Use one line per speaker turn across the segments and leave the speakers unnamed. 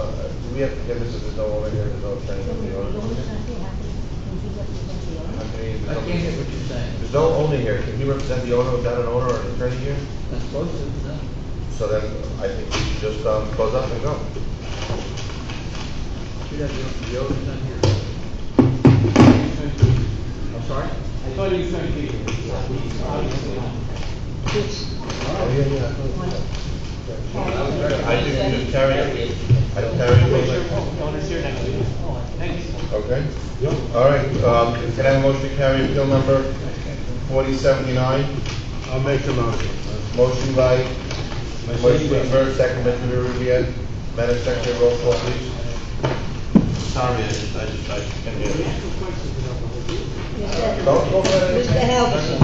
Yep, yeah, this is the over here, there's no train on the other. I mean,
I can't hear what you're saying.
There's no owner here, can he represent the owner, is that an owner or an attorney here?
That's supposed to, no.
So then, I think we should just, um, close up and go.
Should have the, the owner's not here. I'm sorry?
I thought you sent people. Obviously not.
I think we just carry it, I carry
Make
it,
sure owners here next week. Oh, thanks.
okay? All right, um, can I have a motion to carry appeal number forty seventy-nine?
I'll make the motion.
Motion by, motion by
Mercedes.
Bert, second by Rubio. Madam Secretary, roll call please. Sorry, I just, I just, I just can't hear you. Don't go for it.
Mr. Halverson.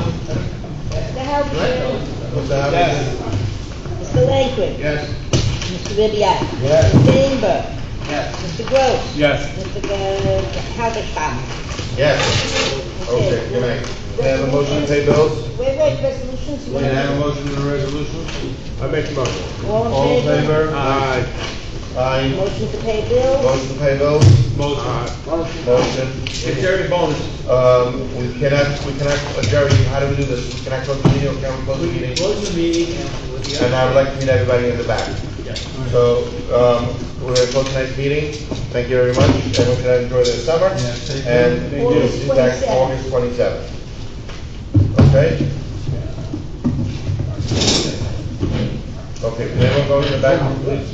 Mr. Halverson.
What's that?
Mr. Langford.
Yes.
Mr. Ribbiat.
Yes.
Mr. Inger.
Yes.
Mr. Gross.
Yes.
Mr. Go- Halverson.
Yes. Okay, good night. Can I have a motion to pay bills?
Wait, wait, resolutions.
Can I have a motion to the resolution?
I make the motion.
All
All in favor?
Aye.
Aye.
Motion to pay bills.
Motion to pay bills?
Motion.
It's
Motion.
already bonus.
Um, we cannot, we cannot, uh, Jerry, how do we do this? We cannot close the meeting, or can we close the
We can
meeting?
close the meeting and with the.
And I would like to meet everybody in the back.
Yes.
So, um, we're gonna close tonight's meeting. Thank you very much. Everyone can enjoy their summer. And we'll see you back August twenty-seventh. Okay? Okay, can everyone go in the back, please?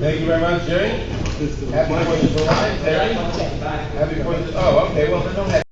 Thank you very much, Jerry. Happy Fourth of July. Jerry? Happy Fourth, oh, okay, well, then don't have.